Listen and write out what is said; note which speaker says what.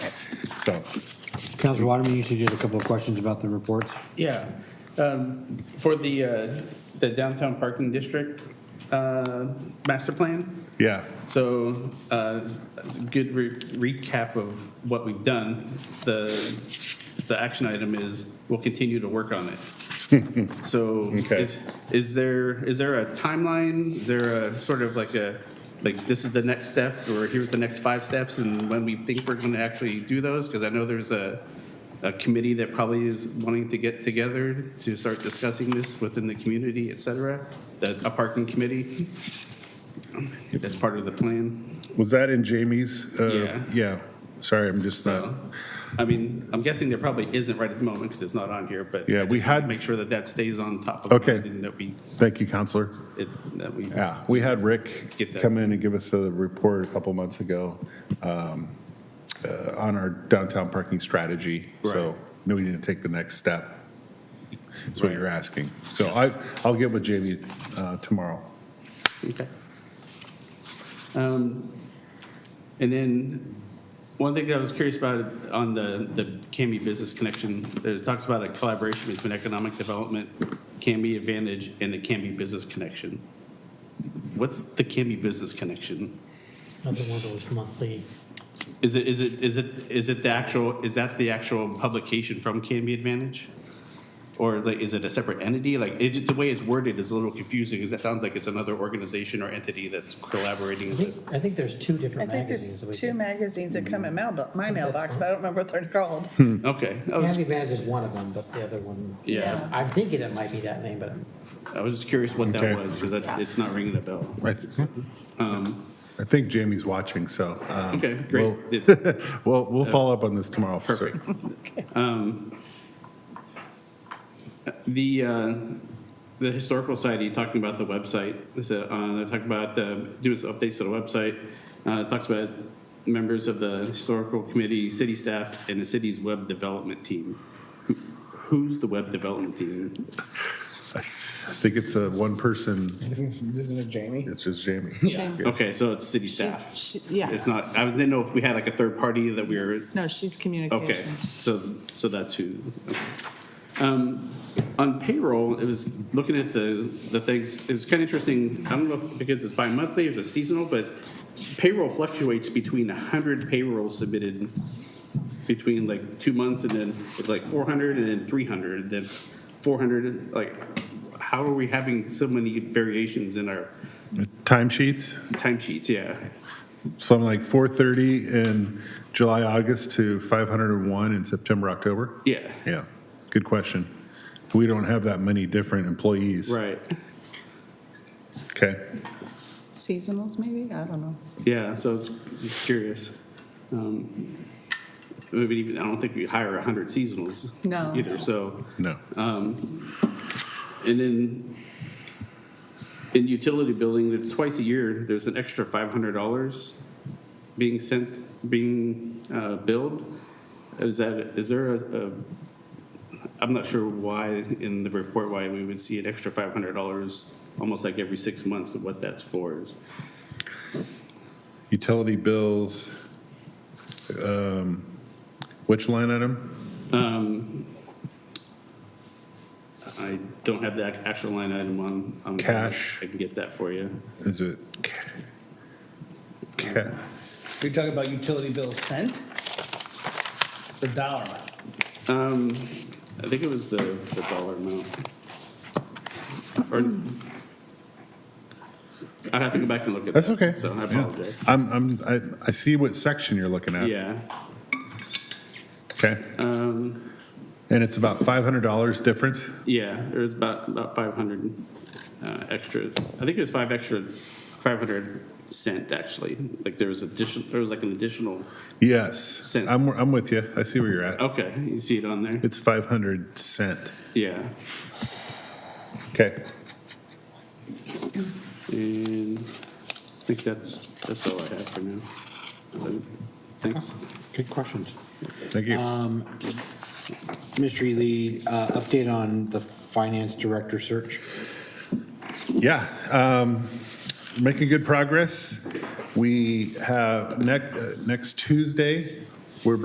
Speaker 1: So,
Speaker 2: Counselor Waterman, you said you had a couple of questions about the reports?
Speaker 3: Yeah, um, for the, uh, the downtown parking district, uh, master plan.
Speaker 1: yeah,
Speaker 3: So, uh, a good re- recap of what we've done. The, the action item is, we'll continue to work on it. So,
Speaker 1: Okay.
Speaker 3: is, is there, is there a timeline? Is there a sort of like a, like, this is the next step, or here's the next five steps, and when we think we're gonna actually do those? Because I know there's a, a committee that probably is wanting to get together to start discussing this within the community, et cetera, the- a parking committee. That's part of the plan.
Speaker 1: was that in Jamie's? Uh,
Speaker 3: Yeah.
Speaker 1: Yeah, sorry, I'm just not,
Speaker 3: So, I mean, I'm guessing there probably isn't right at the moment because it's not on here, but. I
Speaker 1: Yeah, we
Speaker 3: just wanna
Speaker 1: had-
Speaker 3: Make sure that that stays on top of.
Speaker 1: Okay. Uh,
Speaker 3: mind And that we,
Speaker 1: thank you, Counselor.
Speaker 3: it- that we.
Speaker 1: Yeah, we had Rick
Speaker 3: Get that.
Speaker 1: come in and give us a report a couple months ago um, uh, on our downtown parking strategy. So
Speaker 3: Right.
Speaker 1: knew we need to take the next step. That's what
Speaker 3: Right.
Speaker 1: you're asking. So I, I'll get with Jamie uh, tomorrow.
Speaker 3: Okay. Um, And then, one thing I was curious about on the, the CAMI Business Connection, there's talks about a collaboration between economic development, CAMI Advantage, and the CAMI Business Connection. What's the CAMI Business Connection?
Speaker 4: Another one of those monthly,
Speaker 3: Is it, is it, is it, is it the actual, is that the actual publication from Canby Advantage? Or like, is it a separate entity? Like, it, it's- the way it's worded is a little confusing, because that sounds like it's another organization or entity that's collaborating
Speaker 4: I
Speaker 3: with.
Speaker 4: think, I think there's two
Speaker 5: I
Speaker 4: different
Speaker 5: think
Speaker 4: magazines. that we
Speaker 5: there's two
Speaker 4: get.
Speaker 5: magazines that come in mailbo- my mailbox,
Speaker 4: fine.
Speaker 5: but I don't remember what they're called.
Speaker 3: Okay, I was,
Speaker 4: Candy Vantage is one of them, but the other one,
Speaker 3: Oh, yeah,
Speaker 4: I'm thinking it might be that name, but I'm-
Speaker 3: I was just curious what
Speaker 1: Okay.
Speaker 3: that was, because it's not ringing a bell.
Speaker 1: I th-
Speaker 3: Um,
Speaker 1: I think Jamie's watching, so. um,
Speaker 3: Okay, great.
Speaker 1: we'll- We'll, we'll follow up on this tomorrow. sir.
Speaker 3: Perfect. Um, The, uh, the Historical Society, talking about the website, so, uh, they talk about uh, doing some updates to the website. Uh, it Talks about members of the Historical Committee, city staff, and the city's web development team. Who- Who's the web development team?
Speaker 1: I think it's a one person,
Speaker 6: Isn't it Jamie?
Speaker 1: it's just Jamie.
Speaker 3: Okay, so it's city staff.
Speaker 7: She's- she- yeah.
Speaker 3: It's not, I was- didn't know if we had like a third party that we were
Speaker 7: No, she's
Speaker 3: Okay,
Speaker 7: communications.
Speaker 3: so, so that's who. okay. Um, On payroll, it was, looking at the, the things, it was kind of interesting, I don't know if because it's bi-monthly, if it's seasonal, but payroll fluctuates between 100 payrolls submitted between like two months and then it's like 400 and then 300, then 400, like, how are we having so many variations in our
Speaker 1: Timesheets,
Speaker 3: timesheets? Yeah,
Speaker 1: so I'm like 430 in July, August to 501 in September, October?
Speaker 3: yeah,
Speaker 1: Yeah, good question. We don't have that many different employees.
Speaker 3: right,
Speaker 1: Okay,
Speaker 7: Seasonals, maybe? I don't know.
Speaker 3: yeah, so it's just curious. Um, I mean, even- I don't think we hire 100 seasonals.
Speaker 7: No.
Speaker 3: Either, so,
Speaker 1: no.
Speaker 3: and then in utility building, it's twice a year, there's an extra $500 being sent, being uh, billed. Is that, is there a, a- I'm not sure why in the report, why we would see an extra $500 almost like every six months of what that's for.
Speaker 1: Utility bills, um, which line item?
Speaker 3: I don't have the ac- actual line item on. on-
Speaker 1: Cash.
Speaker 3: I can get that for you.
Speaker 1: Is it? ca- ca-
Speaker 6: You're talking about utility bill sent? The dollar amount.
Speaker 3: Um, I think it was the, the dollar amount. Or, I'd have to go back and look at that.
Speaker 1: That's okay.
Speaker 3: So I
Speaker 1: Yeah.
Speaker 3: apologize.
Speaker 1: I'm, I'm, I, I see what section you're looking at.
Speaker 3: Yeah,
Speaker 1: Okay,
Speaker 3: um,
Speaker 1: and it's about $500 difference?
Speaker 3: yeah, there was about, about five hundred, uh, extra, I think it was five extra, five hundred cent, actually. Like, there was addition, there was like an additional,
Speaker 1: Yes,
Speaker 3: Cent.
Speaker 1: I'm, I'm with you. I see where you're at.
Speaker 3: okay, you see it on there?
Speaker 1: It's 500 cent.
Speaker 3: Yeah.
Speaker 1: Okay.
Speaker 3: And I think that's, that's all I have for now. So, Thanks.
Speaker 2: Good questions.
Speaker 1: Thank you.
Speaker 2: Um, Mr. Lee, uh, update on the finance director search?
Speaker 1: Yeah, um, making good progress. We have next, next uh, Tuesday,